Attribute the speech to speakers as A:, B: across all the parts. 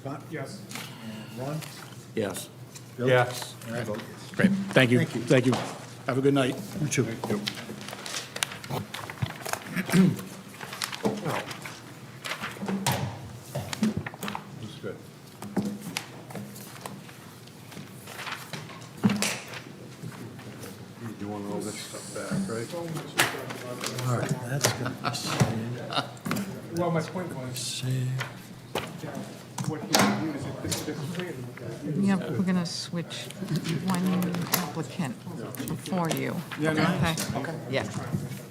A: Scott?
B: Yes.
A: And Ron?
C: Yes.
A: Bill?
B: Yes.
A: And I vote yes.
C: Great, thank you,
A: Thank you.
C: thank you. Have a good night.
A: You too. That's good.
B: You want all this stuff back, right?
A: All right, that's good.
B: Well, my point was, you know, what he would use if this, this plan.
D: Yep, we're going to switch one applicant before you.
B: Yeah, no, I
D: Okay. Yeah.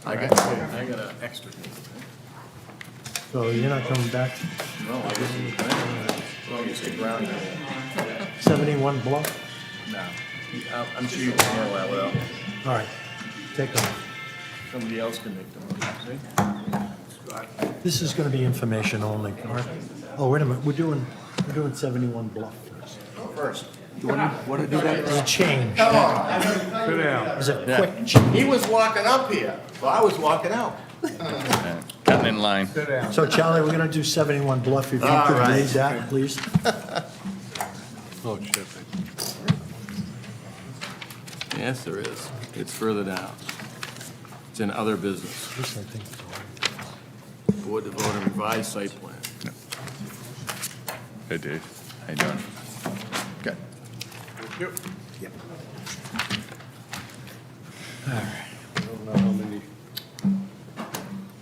C: I got, I got an extra.
A: So you're not coming back?
C: No, I didn't. As long as you stick around.
A: 71 block?
C: No. I'm sure you can handle that well.
A: All right, take off.
C: Somebody else can make the motion,
A: This is going to be information only, all right? Oh, wait a minute, we're doing, we're doing 71 block first.
C: First. You want to do that? Oh.
A: It's a change.
B: Sit down.
A: It's a quick change.
C: He was walking up here, so I was walking out.
E: Cutting in line.
B: Sit down.
A: So Charlie, we're going to do 71 Bluff, if you
C: All
A: could
C: right.
A: raise that, please.
B: Oh, shit.
E: Yes, there is. It's further down. It's in other business.
A: This, I think, is all.
E: Board to vote on revised site plan.
F: Hey, Dave. How you doing? Good.
B: Yep.
G: I don't know how many.
A: Oh,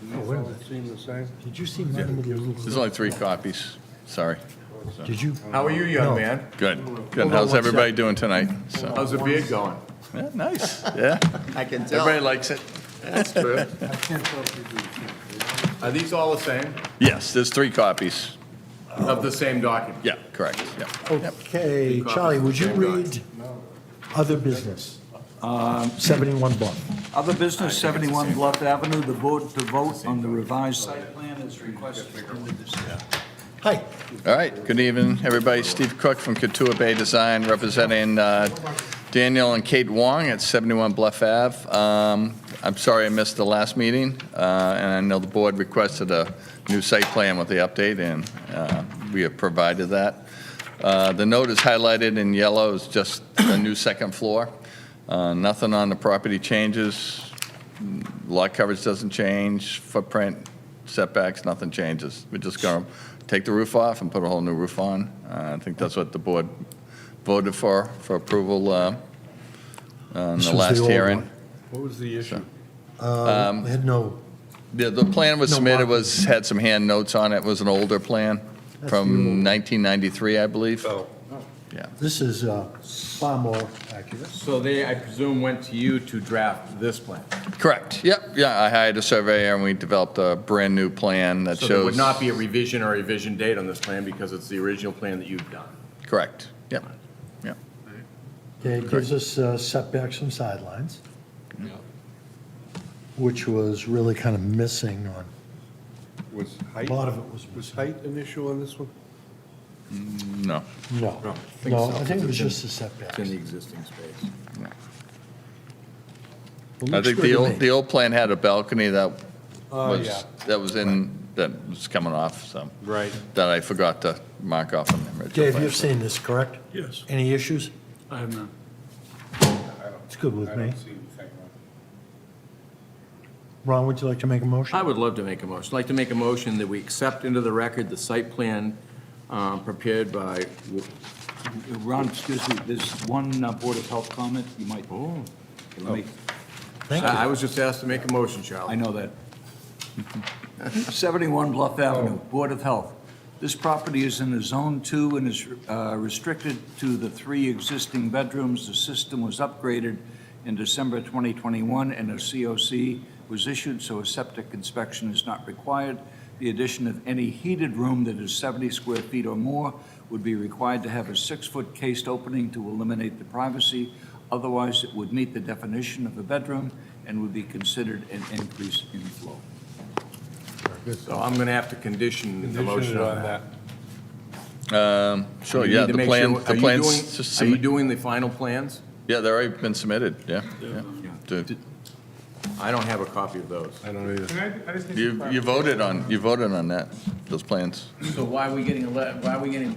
A: wait a
G: all
A: minute.
G: Seem the same?
A: Did you see mine with your
F: There's
A: little...
F: only three copies. Sorry.
A: Did you?
C: How are you, young
A: No.
C: man?
F: Good.
A: on
F: Good. How's
A: one
F: everybody
A: sec.
F: doing tonight? So,
C: How's the beard going?
F: yeah, nice. Yeah.
C: I can
F: Everybody likes it.
C: That's true. Are these all the same,
F: Yes, there's three copies.
C: of the same document?
F: Yeah, correct.
A: Oh,
F: Yeah. Yep.
A: Okay, Charlie, would you read other business? Um, 71 Bluff.
H: Other business, 71 Bluff Avenue, the board to vote on the revised site plan as requested in the decision.
A: Hi.
F: All right. Good evening, everybody. Steve Cook from Katua Bay Design, representing uh, Daniel and Kate Wong at 71 Bluff Ave. Um, I'm sorry I missed the last meeting, uh, and I know the board requested a new site plan with the update, and uh, we have provided that. Uh, The note is highlighted in yellow, is just a new second floor. Uh, Nothing on the property changes, lot coverage doesn't change, footprint, setbacks, nothing changes. We're just going to take the roof off and put a whole new roof on. Uh, I think that's what the board voted for, for approval uh, on
A: This was
F: the
A: the
F: last
A: old
F: hearing.
A: one.
G: What was the issue?
A: We Um, Had no,
F: The, the plan was
A: No
F: submitted,
A: marking.
F: was, had some hand notes on it, was an older plan
A: That's the old
F: from
A: one.
F: 1993, I believe.
E: Oh.
F: Yeah.
A: this is uh, far more accurate.
E: So they, I presume, went to you to draft this plan?
F: Correct, yep, yeah, I hired a surveyor and we developed a brand-new plan that
E: So
F: shows.
E: there would not be a revision or revision date on this plan because it's the original plan that you've done?
F: Correct, yep, yep.
A: Okay, it gives us uh, setbacks from sidelines, which was really kind of missing on,
G: Was height?
A: lot of it was
G: Was
A: missing.
G: height an issue on this one?
F: No,
A: no.
E: No, I think
A: No,
E: so,
A: I think it was
E: it's in-
A: just the setbacks.
E: It's in the existing space.
A: It
F: I
A: looks
F: think
A: good
F: the
A: to
F: old,
A: me.
F: the old plan had a balcony that
G: Oh, yeah.
F: was, that was in, that was coming off, so.
G: Right.
F: That I forgot to mark off on the original.
A: Dave,
F: plan.
A: you've seen this, correct?
G: Yes.
A: Any issues?
G: I have none.
A: It's good with
G: I
A: me.
G: don't see anything wrong.
A: Ron, would you like to make a motion?
E: I would love to make a motion. I'd like to make a motion that we accept into the record the site plan um, prepared by,
H: Ron, excuse me, there's one uh, Board of Health comment you might. Oh.
A: Thank you.
E: I I was just asked to make a motion, Charlie.
H: I know that. 71 Bluff Avenue, Board of Health. This property is in a Zone 2 and is uh, restricted to the three existing bedrooms. The system was upgraded in December 2021, and a COC was issued, so a septic inspection is not required. The addition of any heated room that is 70 square feet or more would be required to have a six-foot cased opening to eliminate the privacy. Otherwise, it would meet the definition of a bedroom and would be considered an increase in flow.
E: So I'm going to have to condition the
G: Condition
E: motion on
G: on
E: that.
G: that.
F: Um, Sure,
E: You
F: yeah,
E: need to
F: the
E: make
F: plan,
E: sure- are
F: the
E: you doing-
F: plans, s-
E: Are you
F: submit-
E: doing the final plans?
F: yeah, they've already been submitted, yeah, yeah. The-
E: I don't have a copy of those.
G: I don't either.
B: Can I, I just need some
F: You, you
B: clarification.
F: voted on, you voted on that, those plans.
E: So why are we getting a, le- why are we getting